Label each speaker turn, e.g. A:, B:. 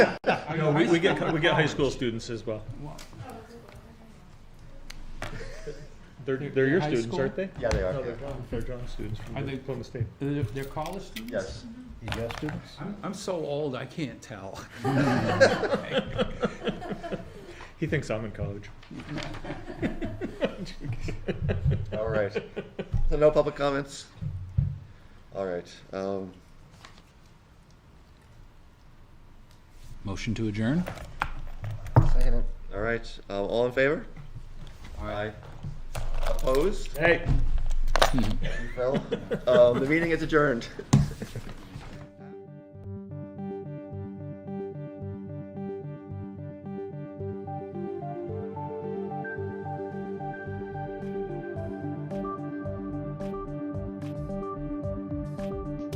A: Are you
B: No, we,
A: high
B: we get,
A: school?
B: we get high school students as well.
A: Wow.
B: They're,
A: They're-
B: they're your
A: high
B: students,
A: school?
B: aren't they?
C: Yeah, they
B: No,
C: are.
B: they're John, they're John students from
A: Are
B: the-
A: they-
B: from the state.
A: They're, they're college students?
C: Yes.
D: You got students?
A: I'm, I'm so old, I can't tell.
B: He thinks I'm in college.
C: All right. So no public comments? All right. Um,
E: Motion to adjourn?
C: second it. All right. Uh, all in favor? Aye. Opposed?
B: Hey.
C: You fell. Um, the meeting is adjourned.